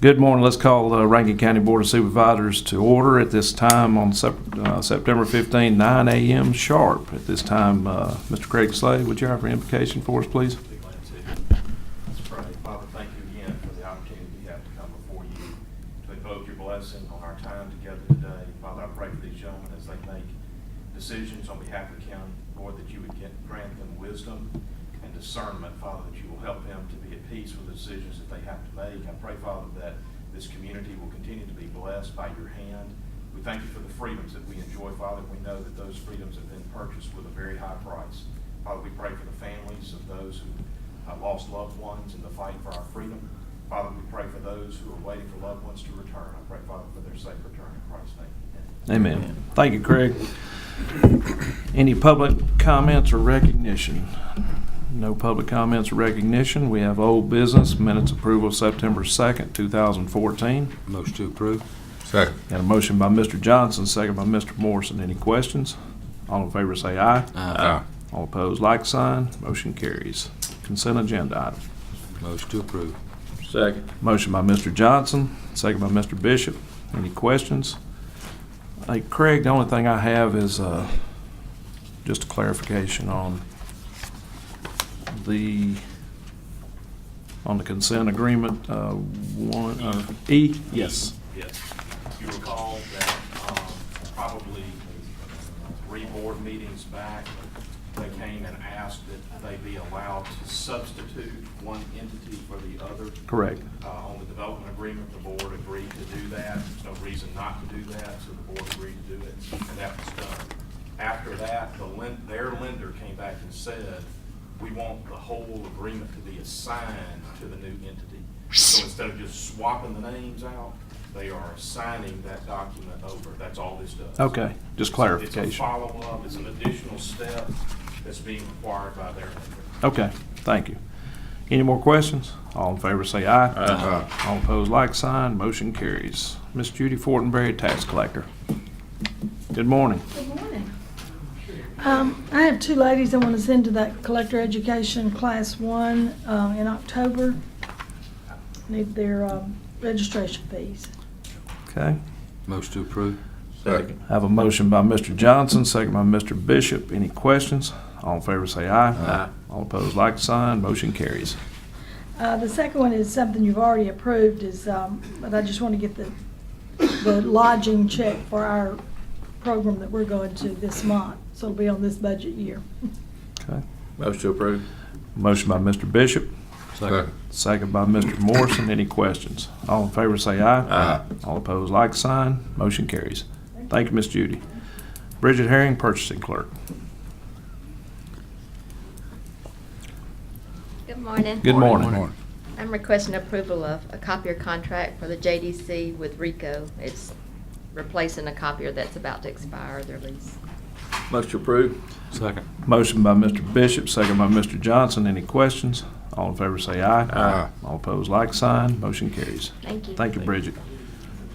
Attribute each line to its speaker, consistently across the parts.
Speaker 1: Good morning. Let's call the Rankin County Board of Supervisors to order at this time on Sep- uh, September 15, 9 a.m. sharp. At this time, uh, Mr. Craig Slade, would you have an invocation for us, please?
Speaker 2: Be glad to. Let's pray. Father, thank you again for the opportunity we have to come before you to invoke your blessing on our time together today. Father, I pray for these gentlemen as they make decisions on behalf of the county. Lord, that you would get- grant them wisdom and discernment, Father, that you will help them to be at peace with the decisions that they have to make. I pray, Father, that this community will continue to be blessed by your hand. We thank you for the freedoms that we enjoy, Father. We know that those freedoms have been purchased with a very high price. Father, we pray for the families of those who uh, lost loved ones in the fight for our freedom. Father, we pray for those who are waiting for loved ones to return. I pray, Father, for their safe return in Christ's name. Amen.
Speaker 1: Amen. Thank you, Craig. Any public comments or recognition? No public comments or recognition. We have old business, minutes approval September 2nd, 2014.
Speaker 3: Motion to approve?
Speaker 4: Second.
Speaker 1: Got a motion by Mr. Johnson, second by Mr. Morrison. Any questions? All in favor say aye.
Speaker 4: Aye.
Speaker 3: Uh,
Speaker 1: All opposed, like sign. Motion carries. Consent agenda item.
Speaker 3: Motion to approve?
Speaker 4: Second.
Speaker 1: Motion by Mr. Johnson, second by Mr. Bishop. Any questions? Hey, Craig, the only thing I have is uh, just a clarification on the, on the consent agreement, uh, one, uh, E? Yes.
Speaker 2: Yes. You recall that um, probably three board meetings back, they came and asked that they be allowed to substitute one entity for the other.
Speaker 1: Correct.
Speaker 2: Uh, On the development agreement, the board agreed to do that. There's no reason not to do that, so the board agreed to do it, and that was done. After that, the lend, their lender came back and said, we want the whole agreement to be assigned to the new entity. So instead of just swapping the names out, they are assigning that document over. That's all this does.
Speaker 1: Okay, just
Speaker 2: It's a
Speaker 1: clarification.
Speaker 2: follow-up, it's an additional step that's being required by their lender.
Speaker 1: Okay, thank you. Any more questions? All in favor say aye.
Speaker 4: Aye.
Speaker 1: All opposed, like sign. Motion carries. Miss Judy Fortenberry, tax collector. Good morning.
Speaker 5: Good morning. Um, I have two ladies I want to send to that collector education class one, uh, in October. Need their, um, registration fees.
Speaker 1: Okay.
Speaker 3: Motion to approve?
Speaker 4: Second.
Speaker 1: I have a motion by Mr. Johnson, second by Mr. Bishop. Any questions? All in favor say aye.
Speaker 4: Aye.
Speaker 1: All opposed, like sign. Motion carries.
Speaker 5: Uh, the second one is something you've already approved is, um, but I just want to get the, the lodging check for our program that we're going to this month. So it'll be on this budget year.
Speaker 1: Okay.
Speaker 4: Motion to approve.
Speaker 1: Motion by Mr. Bishop, second by Mr. Morrison. Any questions? All in favor say aye.
Speaker 4: Aye.
Speaker 1: All opposed, like sign. Motion carries. Thank you, Miss Judy. Bridget Herring, purchasing clerk.
Speaker 6: Good morning.
Speaker 1: Good morning.
Speaker 6: I'm requesting approval of a copier contract for the JDC with Rico. It's replacing a copier that's about to expire their lease.
Speaker 4: Motion to approve.
Speaker 3: Second.
Speaker 1: Motion by Mr. Bishop, second by Mr. Johnson. Any questions? All in favor say aye.
Speaker 4: Aye.
Speaker 1: All opposed, like sign. Motion carries.
Speaker 6: Thank you.
Speaker 1: Thank you, Bridget.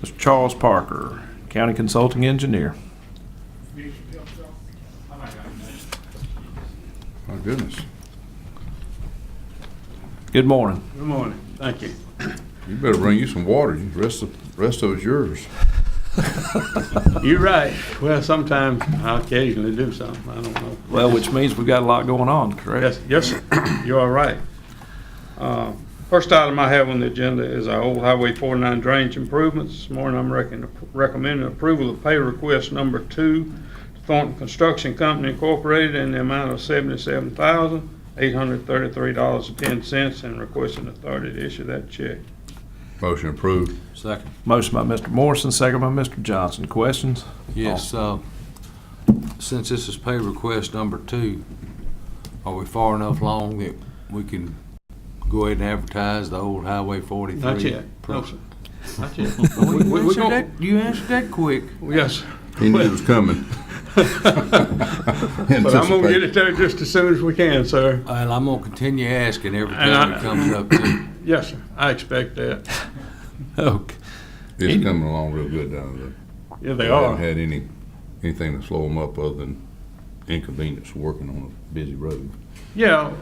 Speaker 1: Mr. Charles Parker, County Consulting Engineer.
Speaker 4: My goodness.
Speaker 1: Good morning.
Speaker 7: Good morning, thank you.
Speaker 4: You better bring you some water. You- Rest of, rest of it's yours.
Speaker 7: You're right. Well, sometimes I occasionally do something, I don't know.
Speaker 1: Well, which means we've got a lot going on, correct?
Speaker 7: Yes, yes, sir. you are right. Uh, First item I have on the agenda is our old Highway 49 drainage improvements. This morning, I'm reckon- recommending approval of pay request number two, Thornton Construction Company Incorporated, in the amount of $77,833.10, and requesting authority to issue that check.
Speaker 4: Motion approved.
Speaker 3: Second.
Speaker 1: Motion by Mr. Morrison, second by Mr. Johnson. Questions?
Speaker 3: Yes, uh,
Speaker 4: Oh.
Speaker 3: since this is pay request number two, are we far enough along that we can go ahead and advertise the old Highway 43?
Speaker 7: Not yet, no, sir. Not yet.
Speaker 3: We-
Speaker 7: We-
Speaker 3: we-
Speaker 7: we-
Speaker 3: we
Speaker 7: we
Speaker 3: gon-
Speaker 7: gon-
Speaker 3: You answered that quick.
Speaker 7: Yes, sir.
Speaker 4: He knew it was coming.
Speaker 7: But I'm gonna get it there just as soon as we can, sir.
Speaker 3: And I'm gonna continue asking every
Speaker 7: And
Speaker 3: time
Speaker 7: I-
Speaker 3: it comes up to.
Speaker 7: Yes, sir, I expect that.
Speaker 1: Okay.
Speaker 4: It's coming along real good down there.
Speaker 7: Yeah, they
Speaker 4: Haven't
Speaker 7: are.
Speaker 4: had any, anything to slow them up other than inconvenience working on a busy road.
Speaker 7: Yeah,